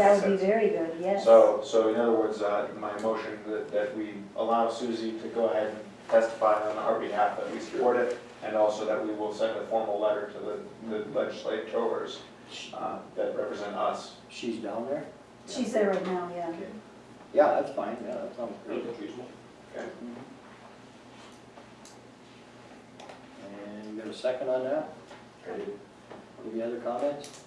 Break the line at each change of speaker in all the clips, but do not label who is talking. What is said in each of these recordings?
That would be very good, yes.
So, so in other words, uh, my motion that, that we allow Susie to go ahead and testify on our behalf that we support it, and also that we will send a formal letter to the, the legislators, uh, that represent us.
She's down there?
She's there right now, yeah.
Yeah, that's fine, yeah, that sounds good. And you got a second on that? Any other comments?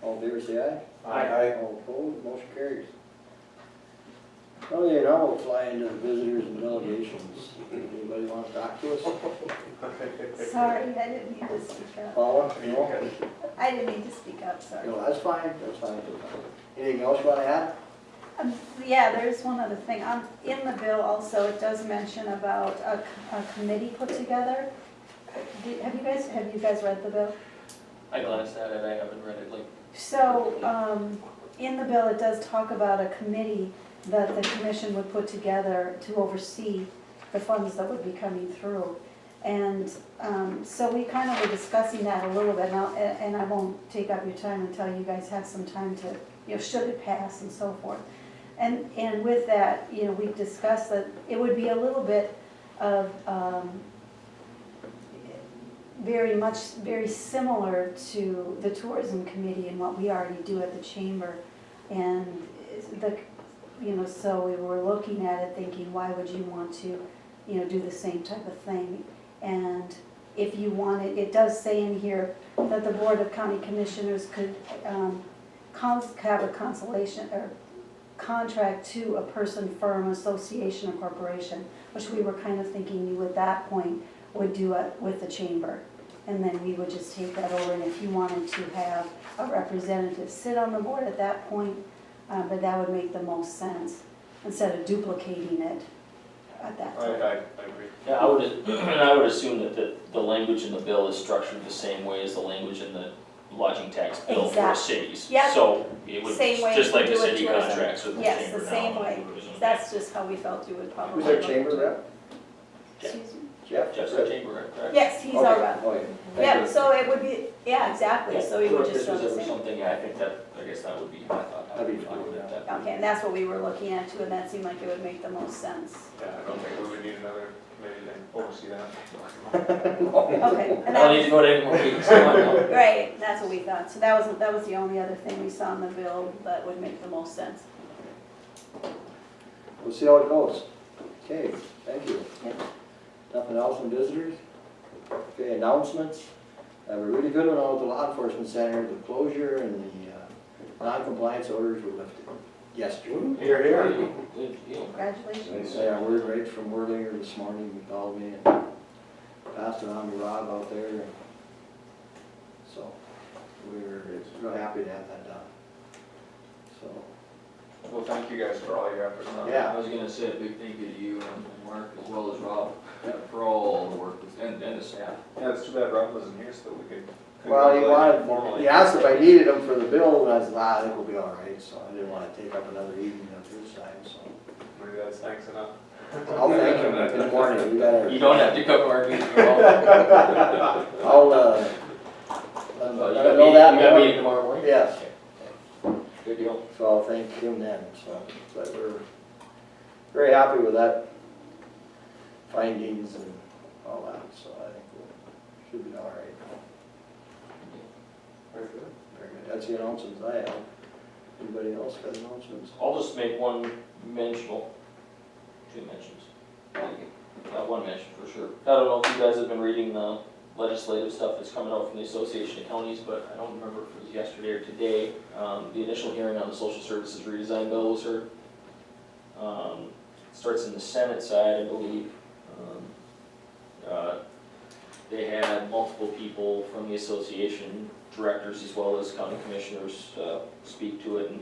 All in favor, say aye.
Aye.
All opposed, motion carries. Okay, now we'll fly into the visitors and delegations. Anybody want to talk to us?
Sorry, I didn't mean to speak up.
Paula, no?
I didn't mean to speak up, sorry.
No, that's fine, that's fine. Anything else you want to add?
Um, Yeah, there's one other thing. Um, In the bill also, it does mention about a c- a committee put together. Did- Have you guys, have you guys read the bill?
I glanced at it, I haven't read it, like,
So, um, in the bill, it does talk about a committee that the commission would put together to oversee the funds that would be coming through. And, um, so we kind of were discussing that a little bit, and I'll, and I won't take up your time until you guys have some time to, you know, should it pass and so forth. And, and with that, you know, we discussed that it would be a little bit of, um, very much, very similar to the tourism committee and what we already do at the chamber. And it's the, you know, so we were looking at it thinking, why would you want to, you know, do the same type of thing? And if you wanted, it does say in here that the Board of County Commissioners could, um, cons, have a consolation, or contract to a person, firm, association, or corporation, which we were kind of thinking you at that point would do it with the chamber. And then we would just take that over, and if you wanted to have a representative sit on the board at that point, uh, but that would make the most sense, instead of duplicating it at that
I, I,
time.
I agree.
yeah, I would, and I would assume that the, the language in the bill is structured the same way as the language in the lodging tax bill for
Exactly.
cities.
Yep.
So it would,
Same way
just like
you
the
do with
city
tourism.
contracts with the
Yes,
chamber
the
now
same
on
way.
tourism.
That's just how we felt you would probably.
Who's our
look
chamber
into it.
rep?
Excuse me?
Jeff?
Jeff's the chamber, rep, correct?
Yes, he's our rep.
Okay, okay, thank
Yeah,
you.
so it would be, yeah, exactly, so we would
If
just
this
go
was
the
ever
same.
something, yeah, I think that, I guess that would be, I thought that
That'd
would
be
be
fine,
with that.
Okay, and that's what we were looking at too, and that seemed like it would make the most sense.
Yeah, I don't think we would need another committee to oversee that.
Okay,
I
and
don't need to
that,
go to any more meetings, come on, no.
right, that's what we thought, so that was, that was the only other thing we saw in the bill that would make the most sense.
We'll see how it goes. Okay, thank you.
Yep.
Nothing else from visitors? Okay, announcements. I have a really good one out of the law enforcement center, the closure and the uh, non-compliance orders were lifted yesterday.
Here, here.
Good deal.
They
Congratulations.
say I word right from Worlinger this morning, he called me and passed it on to Rob out there. and So, we're real happy to have that done. So,
Well, thank you guys for all your efforts on that.
yeah.
I was gonna say a big thank you to you and Mark as well as Rob for all the work that's- and, and the staff.
Yeah, it's too bad Rob wasn't here, so that we could.
Well, he
congratulate him
wanted,
formally.
he asked if I needed them for the bill, and I said, ah, I think we'll be all right, so I didn't wanna take up another evening of his time, so.
Maybe that's thanks enough.
I'll thank him in the morning, we
You
gotta,
don't have to come to our meeting, you're
I'll,
all-
uh, let him
you
let
got
him know
meeting, you
that.
got
morning.
meeting tomorrow morning?
Yes,
Good deal.
so I'll thank him then, so, but we're very happy with that findings and all that, so I think we should be all right.
Very good.
Very good, that's the announcements I have. Anybody else got announcements?
I'll just make one mention, well, two mentions. Uh, one mention for sure. I don't know if you guys have been reading the legislative stuff that's coming out from the Association of Counties, but I don't remember if it was yesterday or today. Um, the initial hearing on the social services redesign bill was heard. Um, starts in the Senate side, I believe. Um, uh, They had multiple people from the association, directors as well as county commissioners, uh, speak to it. And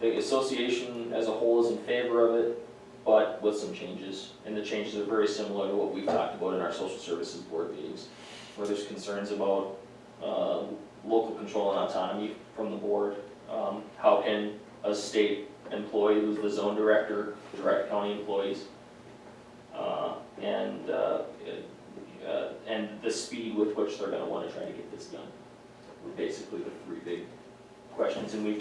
the association as a whole is in favor of it but with some changes. And the changes are very similar to what we've talked about in our social services board meetings, where there's concerns about uh, local control and autonomy from the board. Um, How can a state employee who's the zone director direct county employees? Uh, And, uh, it- uh, and the speed with which they're gonna wanna try to get this done. Were Basically the three big questions, and we've